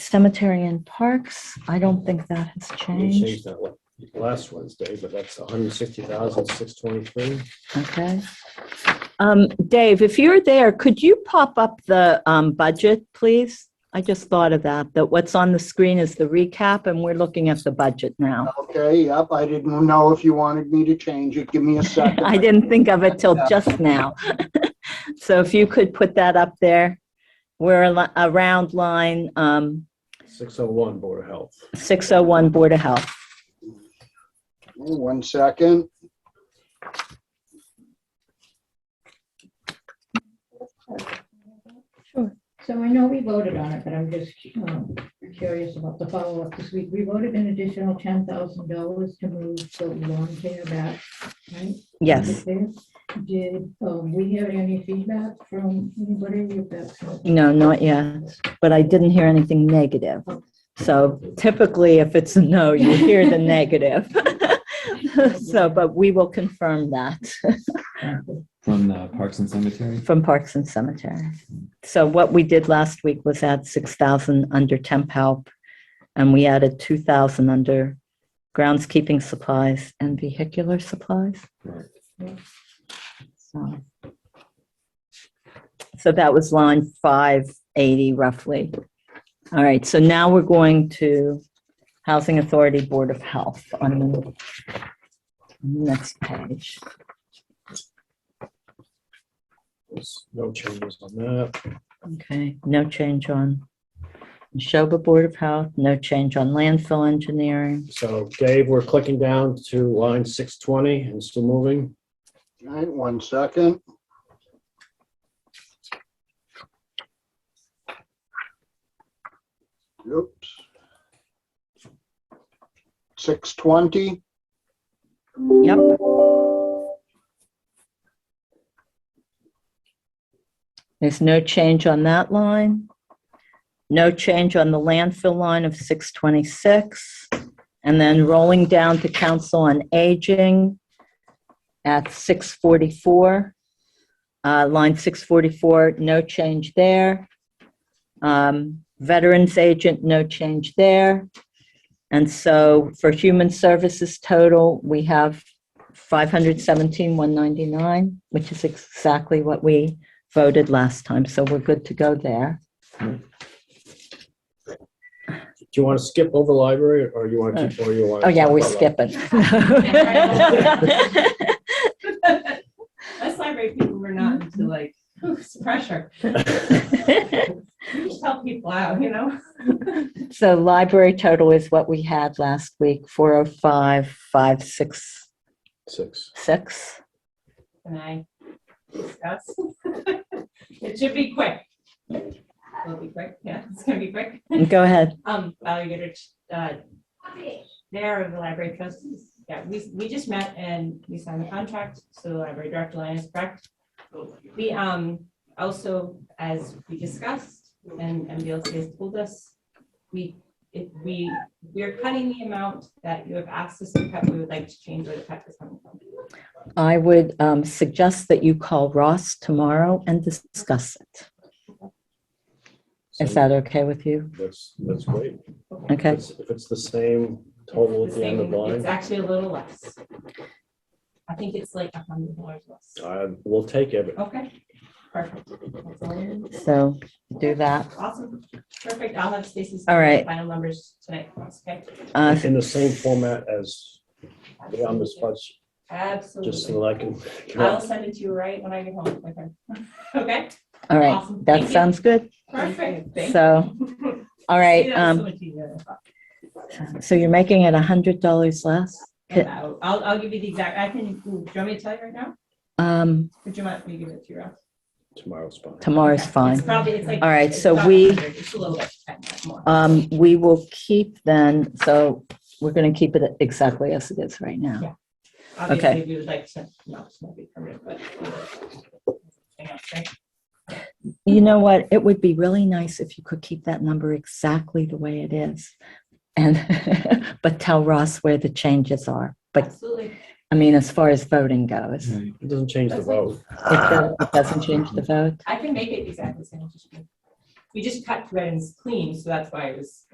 Cemetery and Parks, I don't think that has We changed changed. that one last Wednesday, but that's $160,623. Okay. Um, Dave, if you're there, could you pop up the um, budget, please? I just thought of that, that what's on the screen is the recap, and we're looking at the budget now. Okay, yep, I didn't know if you wanted me to change it. Give me a second. I didn't think of it till just now. So if you could put that up there, we're al- around line um, 601 Board of Health. 601 Board of Health. One second. So I know we voted on it, but I'm just um, curious about the follow-up this week. We voted an additional ten thousand dollars to move the lawn care back, right? Yes, Did um, we have any feedback from anybody with that? no, not yet, but I didn't hear anything negative. So typically, if it's a no, you hear the negative. So, but we will confirm that From the Parks and Cemetery? from Parks and Cemetery. So what we did last week was add 6,000 under temp help, and we added 2,000 under groundskeeping supplies and vehicular supplies. Right. So so that was line 580 roughly. All right, so now we're going to Housing Authority Board of Health on the on the next page. There's No changes on that. Okay, no change on Neshoba Board of Health, no change on landfill engineering. So Dave, we're clicking down to line 620 and still moving. All right, one second. Oops. Six twenty, Yep. There's no change on that line. No change on the landfill line of 626. And then rolling down to Council on Aging at 644. Uh, Line 644, no change there. Um, Veterans Agent, no change there. And so for human services total, we have 517,199, which is exactly what we voted last time, so we're good to go there. Do you want to skip over library or you want to keep, or you want? Oh, yeah, we're skip. skipping. Us library people were not into like, ooh, it's pressure. You just help people out, you know? So library total is what we had last week, 405,566. Six. And I discuss. It should be quick. Will it be quick, yeah, it's gonna be quick. Go ahead. Um, valuator, uh, there of the library trustees. Yeah, we, we just met and we signed the contract, so the library director line is correct. We, um, also, as we discussed, and MBLC has told us, we, if we, we're cutting the amount that you have asked us to cut, we would like to change where the cut is coming from. I would um, suggest that you call Ross tomorrow and discuss it. Is So that okay with you? That's, that's great. If Okay, it's- If it's the same total at The the end of same- It's line, actually a little less. I think it's like a hundred dollars less. uh, we'll take it. Okay, perfect. That's all I need. so do that. Awesome, perfect, I'll have Stacy's. All right. Final numbers tonight, for us, okay? Uh, In the same format as the on the spreadsheet, just so Absolutely. that I can. I'll send it to you right when I get home, okay? Okay, All right, Awesome. Thank that you. sounds good. perfect. Thank So, you. all right, Yeah, so um, much easier. so you're making it a hundred dollars less? Ca- I'll, I'll I'll give you the exact, I can, ooh, do you want me to tell you right now? Um, Would you mind, me give it to you? Ralph? Tomorrow's fine. tomorrow's Okay. fine. It's probably, it's like. All right, it's so about we- 100, It's a little bit more. Um, we will keep then, so we're gonna keep it exactly as it is right now. Obviously, if you would like to, no, it's not be permanent, but. Hang on, okay? You know what? It would be really nice if you could keep that number exactly the way it is. And, but tell Ross where the changes are. But, Absolutely. I mean, as far as voting goes, it Right. It doesn't change the vote. doesn't- it doesn't change the vote. I can make it exactly the same. just- we just cut threads clean, so that's why it was